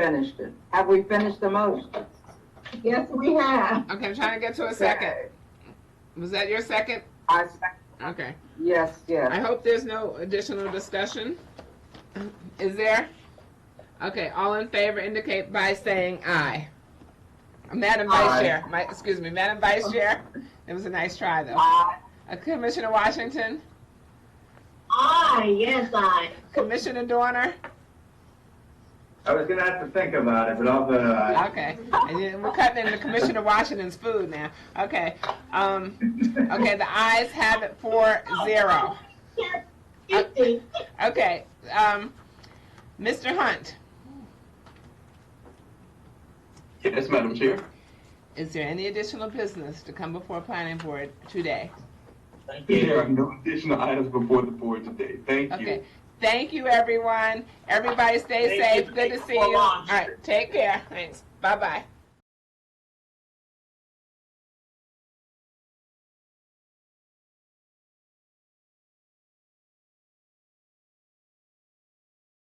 finished it. Have we finished the motion? Yes, we have. Okay, I'm trying to get to a second. Was that your second? I, sec- Okay. yes, I yes. hope there's no additional discussion. Is there? Okay, all in favor indicate by saying aye. Madam Vice Aye. Chair, my, excuse me, Madam Vice Chair. It was a nice try though. Aye. Uh, Commissioner Washington, Aye, yes, aye. Commissioner Dorner. I was gonna have to think about it, but I'll uh, vote aye. Okay, and then we're cutting into Commissioner Washington's food now. Okay, um, okay, the ayes have it four zero. Yes, fifty. Okay, um, Mr. Hunt. Yes, Madam Chair. Is there any additional business to come before planning board today? Thank you. There are no additional items before the board today. Thank Okay. you. Thank you, everyone. Everybody stay Thank safe. you. Good to see you. All right, take care. Thanks. Bye-bye.